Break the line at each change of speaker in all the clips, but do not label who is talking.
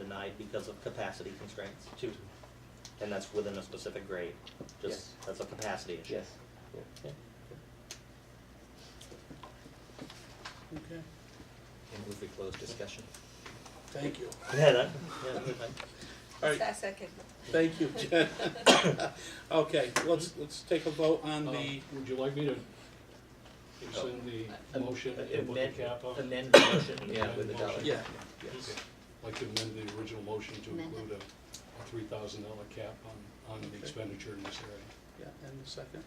applied because of capacity constraints too. And that's within a specific grade, just,
Yes.
that's a capacity issue.
Yes. Yeah.
Yeah.
Okay,
And move we close discussion.
thank you.
Yeah, that, yeah, that's fine.
All right,
I second.
thank you, Jen. Okay, let's, let's take a vote on
Um,
Uh,
the, Oh,
Would you like me to extend
uh,
the motion and put the
Amend,
cap on? I'd
amend the motion, yeah,
Amend
with the
motion.
dollar.
yeah,
like to amend the original motion to
Amend it.
include a, a three thousand dollar cap on, on the
Okay.
expenditure in this area.
yeah, and the second.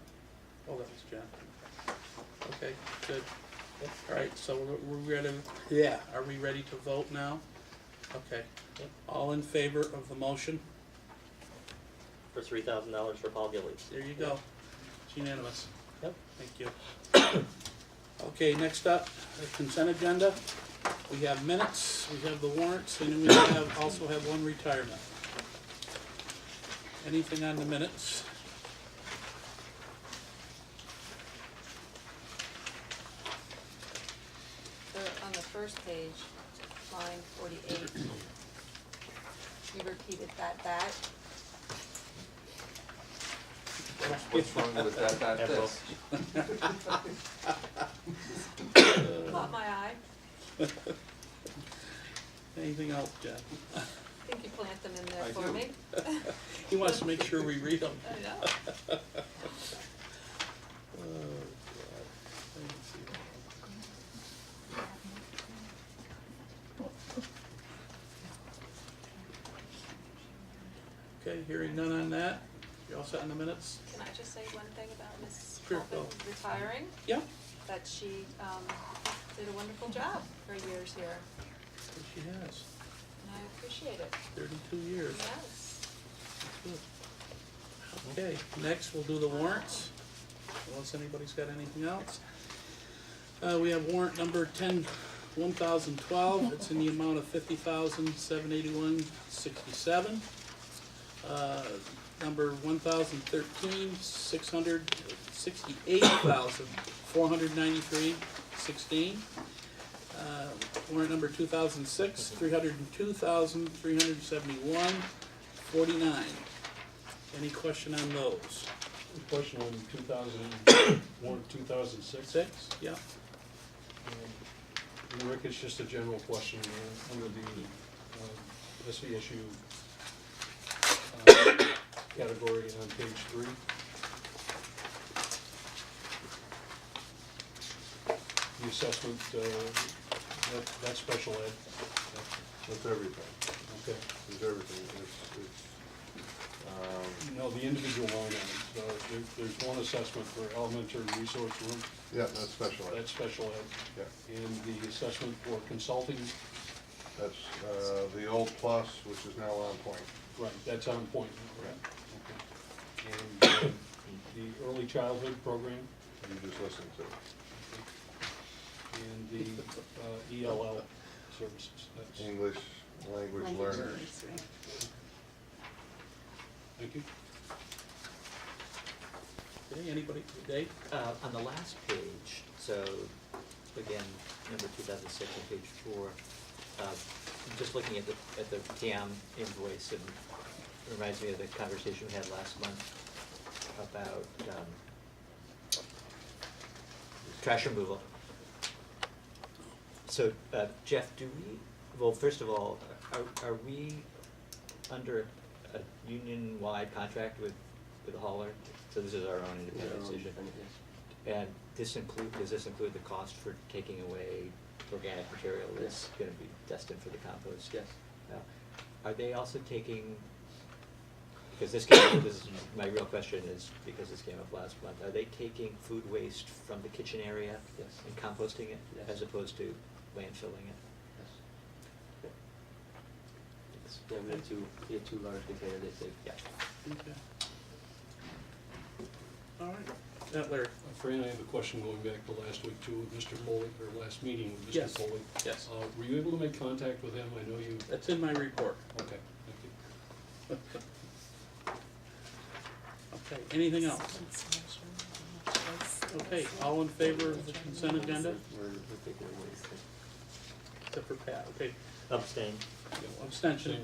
Oh, that was Jen. Okay, good. All right, so we're, we're ready, yeah, are we ready to vote now? Okay,
Yep.
all in favor of the motion?
For three thousand dollars for Paul Gillies.
There you go. It's unanimous.
Yep.
Thank you. Okay, next up, the consent agenda. We have minutes, we have the warrants, and then we have, also have one retirement. Anything on the minutes?
The- on the first page, line forty-eight, you repeated that back.
What's wrong with that, that,
Apple.
this?
Uh,
Caught my eye.
Anything else, Jen?
I think you plant them in there
I
for
do.
me.
He wants to make sure we read them.
I know.
Oh, God. I didn't see that. Okay, hearing none on that. You all set on the minutes?
Can I just say one thing about Mrs.
Sure,
Coffin
go.
retiring?
Yeah.
That she, um, did a wonderful job for years here,
She has,
and I appreciate it.
thirty-two years.
Yes.
Good. Okay, next we'll do the warrants, unless anybody's got anything else. Uh, we have warrant number ten, one thousand twelve, it's in the amount of fifty thousand, seven eighty-one, sixty-seven. Uh, number one thousand thirteen, six hundred, sixty-eight thousand, four hundred ninety-three, sixteen. Uh, warrant number two thousand six, three hundred and two thousand, three hundred and seventy-one, forty-nine. Any question on those?
Question on two thousand, one, two thousand six?
Six? Yeah.
Um, Rick, it's just a general question, uh, under the, um, SVSU, uh, category on page three. The assessment, uh, that, that's special ed,
With everything,
okay,
with everything, it's, it's, um,
no, the individual line items, uh, there, there's one assessment for elementary resource room,
yeah, that's special ed,
that's special ed,
yeah.
and the assessment for consulting,
That's, uh, the old plus, which is now on point.
Right, that's on point, correct? Okay. And uh, the early childhood program
You just listened to it.
and the uh, ELL services, that's,
English language learners.
thank you.
Okay, anybody, Dave?
Uh, on the last page, so again, number two thousand six on page four, uh, just looking at the, at the TAM invoice, and reminds me of the conversation we had last month about, um, trash removal. So, uh, Jeff, do we, well, first of all, are, are we under a union-wide contract with, with the hauler? So this is our own independent decision? And this include, does this include the cost for taking away organic material that's gonna be destined for the compost?
Yes.
Now, Are they also taking, because this came, this is, my real question is, because this came up last month, are they taking food waste from the kitchen area?
Yes.
And composting it?
Yes.
As opposed to landfilling it?
Yeah, we had two, we had two large containers, they said.
Yeah.
Okay. All right, now Larry?
Uh, Fran, I have a question going back to last week too, with Mr. Foley, or last meeting with Mr.
Yes.
Foley.
Yes.
Uh, Were you able to make contact with him? I know you,
That's in my report.
okay, thank you.
Okay, anything else? Okay, all in favor of the consent agenda,
We're, we're taking away.
except for Pat, okay,
Abstain.
abstention.